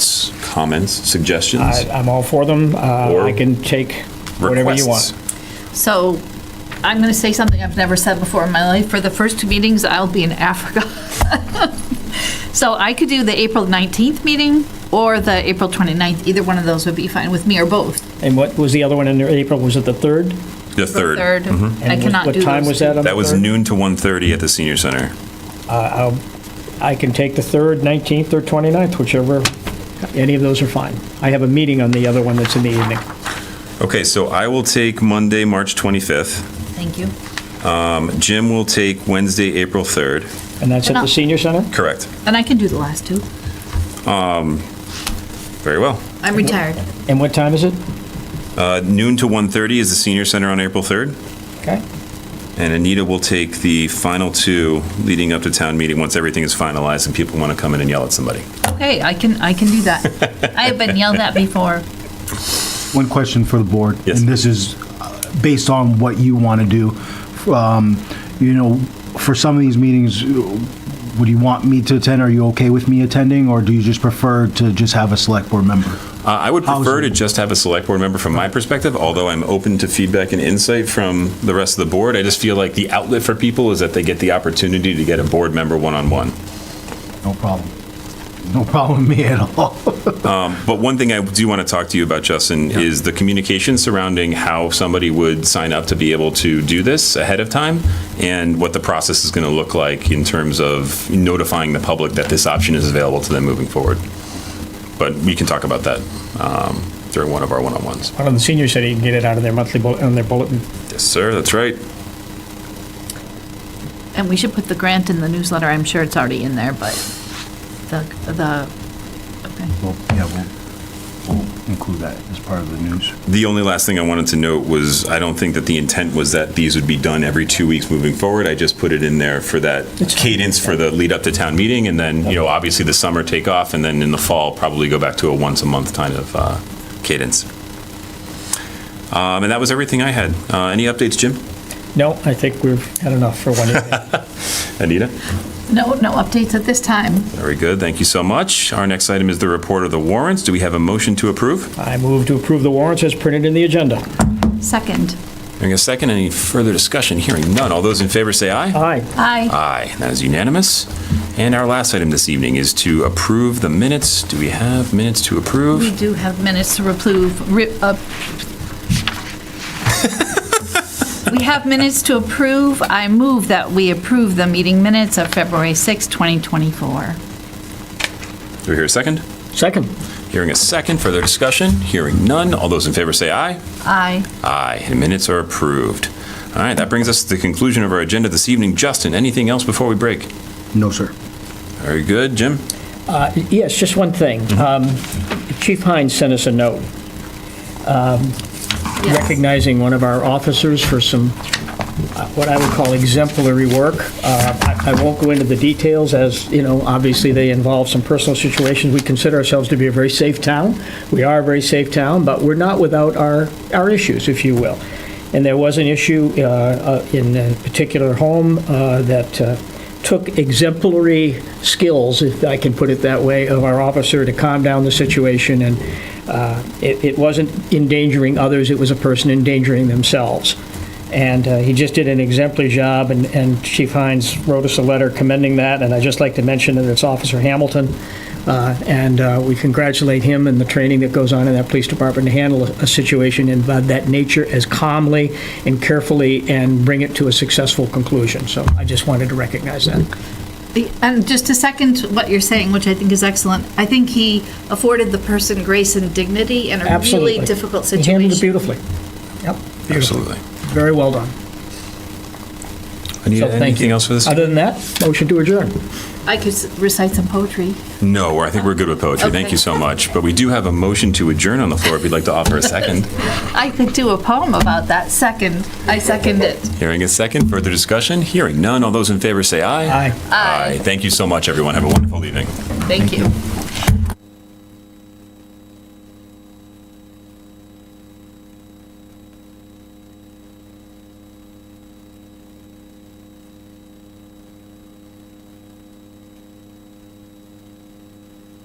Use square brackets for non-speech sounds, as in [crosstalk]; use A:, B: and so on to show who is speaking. A: comments, suggestions?
B: I- I'm all for them. Uh, I can take whatever you want.
A: requests?
C: So I'm going to say something I've never said before in my life. For the first two meetings, I'll be in Africa. [laughs] So I could do the April 19th meeting or the April 29th. Either one of those would be fine with me or both.
B: And what was the other one in there? April? Was it the 3rd?
A: The third.
C: Third, I
B: And
C: cannot do
B: What
C: those.
B: time was that on the
A: That was
B: 3rd?
A: noon to 1:30 at the senior center.
B: I can take the 3rd, 19th, or 29th, whichever, any of those are fine. I have a meeting on the other one that's in the evening.
A: Okay, so I will take Monday, March 25th.
C: Thank you.
A: Jim will take Wednesday, April 3rd.
B: And that's
C: And
B: at
C: I'll-
B: the senior center?
A: Correct.
C: And I can do the last two.
A: Very well.
C: I'm retired.
B: And what time is it?
A: Uh, Noon to 1:30 is the senior center on April 3rd.
B: Okay.
A: And Anita will take the final two leading up to town meeting, once everything is finalized and people want to come in and yell at somebody.
C: Okay, I can, I can do that. I have been yelled at before.
D: One question for the board.
A: Yes.
D: And this is uh, based on what you want to do. Um, You know, for some of these meetings, would you want me to attend? Are you okay with me attending? Or do you just prefer to just have a select board member?
A: Uh, I would
D: How's
A: prefer to
D: it-
A: just have a select board member from my perspective, although I'm open to feedback and insight from the rest of the board. I just feel like the outlet for people is that they get the opportunity to get a board member one-on-one.
D: No problem. No problem with me at all.
A: But one thing I do want to talk to you about, Justin, is the communication surrounding how somebody would sign up to be able to do this ahead of time and what the process is going to look like in terms of notifying the public that this option is available to them moving forward. But we can talk about that um, during one of our one-on-ones.
B: On the senior center, you can get it out of their monthly, bull- on their bulletin.
A: Yes, sir, that's right.
C: And we should put the grant in the newsletter. I'm sure it's already in there, but the, the, okay.
D: Well, Yeah, we'll- we'll include that as part of the news.
A: The only last thing I wanted to note was, I don't think that the intent was that these would be done every two weeks moving forward. I just put it in there for that cadence for the lead up to town meeting, and then, you know, obviously the summer take off, and then in the fall, probably go back to a once a month kind of uh, cadence. Um, And that was everything I had. Uh, Any updates, Jim?
B: No, I think we've had enough for one
A: [laughs]
B: evening.
A: Anita?
C: No, no updates at this time.
A: Very good, thank you so much. Our next item is the report of the warrants. Do we have a motion to approve?
B: I move to approve the warrants as printed in the agenda.
C: Second.
A: Hearing a second, any further discussion? Hearing none. All those in favor say aye.
B: Aye.
C: Aye.
A: Aye, that is unanimous. And our last item this evening is to approve the minutes. Do we have minutes to
C: We
A: approve?
C: do have minutes to approve, ri- uh, we have minutes to approve. I move that we approve the meeting minutes of February 6, 2024.
A: Do we hear a second?
B: Second.
A: Hearing a second, further discussion? Hearing none. All those in favor say aye.
C: Aye.
A: Aye, and minutes are approved. All right, that brings us to the conclusion of our agenda this evening. Justin, anything else before we break?
D: No, sir.
A: Very good. Jim?
B: Uh, Yes, just one thing. Um, Chief Hines sent us a note um, recognizing one of our officers for some, uh, what I would call exemplary work. Uh, I I won't go into the details as, you know, obviously they involve some personal situations. We consider ourselves to be a very safe town. We are a very safe town, but we're not without our, our issues, if you will. And there was an issue uh, uh, in a particular home uh, that uh, took exemplary skills, if I can put it that way, of our officer to calm down the situation, and uh, it it wasn't endangering others, it was a person endangering themselves. And uh, he just did an exemplary job, and- and Chief Hines wrote us a letter commending that, and I'd just like to mention that it's Officer Hamilton, uh, and uh, we congratulate him and the training that goes on in that police department to handle a- a situation in uh, that nature as calmly and carefully and bring it to a successful conclusion. So I just wanted to recognize that.
C: The- And just to second what you're saying, which I think is excellent, I think he afforded the person grace and dignity in a
B: Absolutely.
C: really difficult
B: He handled it
C: situation.
B: beautifully. Yep. beautifully.
A: Absolutely.
B: Very well done. So
A: Anita,
B: thank
A: anything
B: you.
A: else for this?
B: Other than that, motion to adjourn.
C: I could s- recite some poetry.
A: No, I think we're good with poetry. Thank
C: Okay.
A: you so much. But we do have a motion to adjourn on the floor if you'd like to offer a second.
C: I could do a poem about that. Second. I second it.
A: Hearing a second, further discussion? Hearing none. All those in favor say aye.
B: Aye.
A: Aye. Thank you so much, everyone. Have a wonderful evening.
C: Thank you.